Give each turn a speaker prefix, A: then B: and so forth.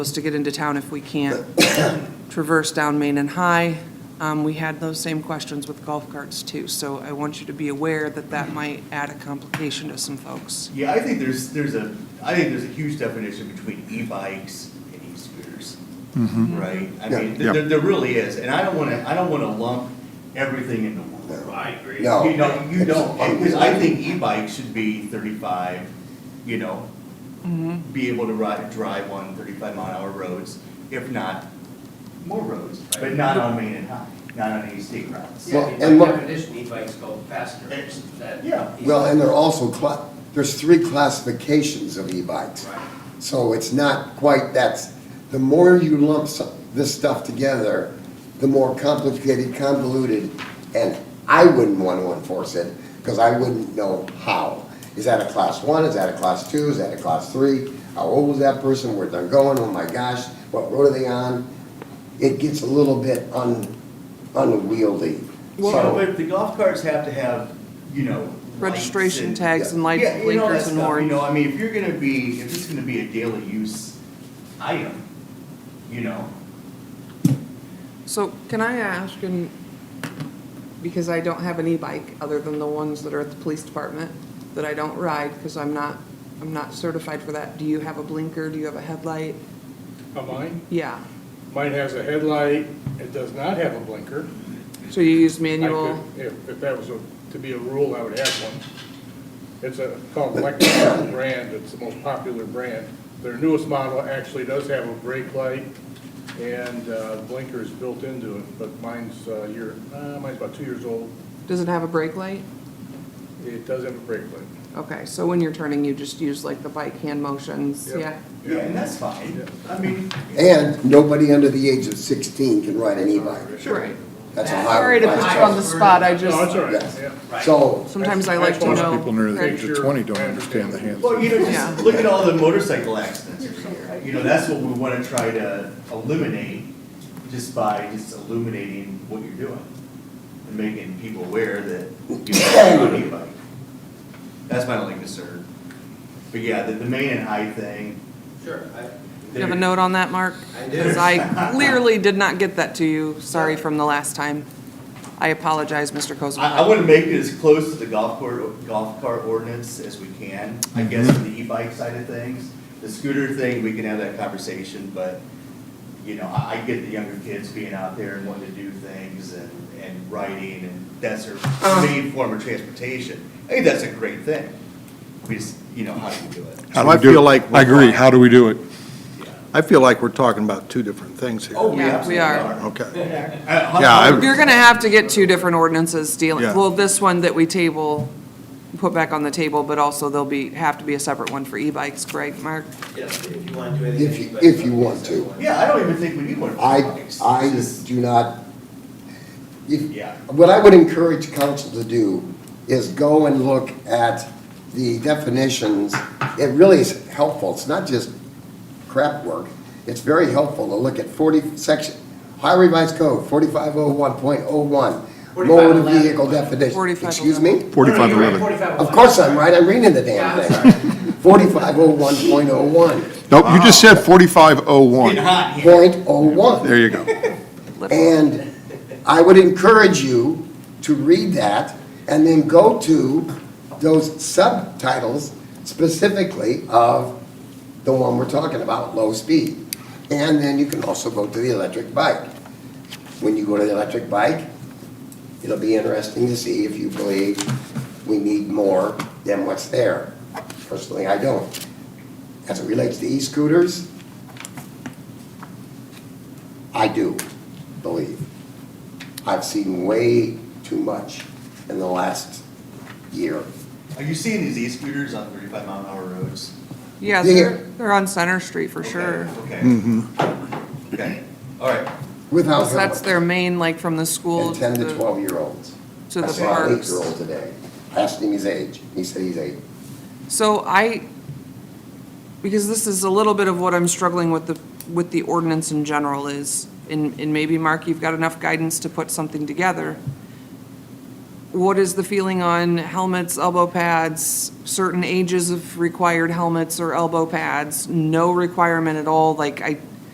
A: supposed to get into town if we can't traverse down Main and High. Um, We had those same questions with golf carts too, so I want you to be aware that that might add a complication to some folks.
B: Yeah, I think there's, there's a, I think there's a huge definition between e-bikes and e-scooters, right? I mean,
C: Mm-hmm. Yeah.
B: there, there- there really is, and I don't wanna, I don't wanna lump everything into one.
C: No.
D: I agree.
C: No.
B: You know, you
C: It's-
B: don't, because I think e-bikes should be thirty-five, you know, be able to ride, drive on thirty-five mile an hour roads, if not more roads, but not on Main and High, not on any state routes.
D: Yeah,
C: Well,
D: I mean,
C: and
D: by
C: look-
D: definition, e-bikes go faster than.
B: Yeah.
C: Well, and they're also, cla- there's three classifications of e-bikes.
D: Right.
C: So it's not quite, that's, the more you lump so- this stuff together, the more complicated, convoluted, and I wouldn't want to enforce it, because I wouldn't know how. Is that a class one, is that a class two, is that a class three? How old was that person, where they're going, oh my gosh, what road are they on? It gets a little bit un, unwieldy.
B: Well,
C: So-
B: but the golf carts have to have, you know. lights
A: Registration
B: and-
A: tags and
B: Yeah,
A: light
B: you know, that
A: blinkers and
B: stuff, You
A: horns.
B: know, I mean, if you're gonna be, if it's gonna be a daily use item, you know,
A: So can I ask, and, because I don't have an e-bike other than the ones that are at the police department that I don't ride because I'm not, I'm not certified for that, do you have a blinker, do you have a headlight?
E: A mine?
A: Yeah,
E: Mine has a headlight, it does not have a blinker.
A: so you use
E: I
A: manual?
E: could- If, if that was a- to be a rule, I would have one. It's a, called Lexus brand, it's the most popular brand. Their newest model actually does have a brake light and uh, blinkers built into it, but mine's uh year, uh, mine's about two years old.
A: Does it have a brake light?
E: It does have a brake light.
A: Okay, so when you're turning, you just use like the bike hand motions,
E: Yep.
A: yeah?
B: yeah, and that's fine, I mean.
C: And nobody under the age of 16 can ride an e-bike.
A: Right.
C: That's a
A: Sorry to
C: highway.
A: put you
C: violation.
A: on the spot, I
E: No, it's
A: just,
E: all right, yeah.
C: So,
A: sometimes I like to
E: Most
A: know.
F: People under the age of
E: Sure.
F: twenty don't understand the hands.
B: Well, you know,
A: Yeah.
B: just look at all the motorcycle accidents or something, you know, that's what we wanna try to eliminate just by just illuminating what you're doing and making people aware that you're on e-bike. That's my only concern. But yeah, the, the main and high thing,
D: Sure, I,
A: Do you have a note on that, Mark?
D: I do.
A: Because I clearly did not get that to you, sorry from the last time. I apologize, Mr.
B: I, I
A: Kozma.
B: wanna make it as close to the golf court, golf cart ordinance as we can, I guess, on the e-bike side of things. The scooter thing, we can have that conversation, but, you know, I, I get the younger kids being out there and wanting to do things and, and riding, and that's their main form of transportation. I think that's a great thing, we just, you know, how do you do it?
F: How
G: And
F: do we
G: I
F: do
G: feel
F: it?
G: like we're-
F: I agree, how do we do it?
G: I feel like we're talking about two different things here.
B: Oh, we
A: Yeah, we
B: absolutely
A: are.
B: are.
G: Okay.
B: Uh,
G: Yeah, I-
A: You're gonna have to get two different ordinances dealing,
G: Yeah.
A: well, this one that we table, put back on the table, but also there'll be, have to be a separate one for e-bikes, correct, Mark?
D: yeah, if you want to do anything.
C: If you-
D: but-
C: if you want to.
B: Yeah, I don't even think we need one. for
C: I,
B: e-bikes.
C: I
B: It's just-
C: do not, if-
B: Yeah.
C: what I would encourage council to do is go and look at the definitions. It really is helpful. It's not just crap work. It's very helpful to look at 40, section, Ohio Revised Code, 4501.01, motor
D: 4511.
C: vehicle definition.
A: 4511.
C: Excuse me?
D: No, no,
F: Forty-five
D: you're right,
F: eleven.
D: 45
C: Of course I'm right, I'm reading the damn
D: Yeah,
C: thing. 4501.01,
F: Nope, you just said forty-five oh
B: Getting
F: one.
B: hot here.
C: point oh one.
F: There you go.
A: Lip-
C: And I would encourage you to read that and then go to those subtitles specifically of the one we're talking about, low speed. And then you can also go to the electric bike. When you go to the electric bike, it'll be interesting to see if you believe we need more than what's there. Personally, I don't. As it relates to e-scooters, I do believe. I've seen way too much in the last year.
B: Are you seeing these e-scooters on thirty-five mile an hour roads?
A: Yeah,
C: Yeah.
A: they're, they're on Center Street for sure.
B: Okay. Okay, all right.
C: Without
A: 'Cause that's
C: helmet.
A: their main, like, from the school
C: And
A: to
C: ten to
A: the,
C: twelve-year-olds.
A: to
C: I
A: the
C: saw an
A: parks.
C: eight-year-old today. I asked him his age. He said he's eight.
A: So I, because this is a little bit of what I'm struggling with the, with the ordinance in general is, and, and maybe, Mark, you've got enough guidance to put something together. What is the feeling on helmets, elbow pads, certain ages of required helmets or elbow pads? No requirement at all, like, I,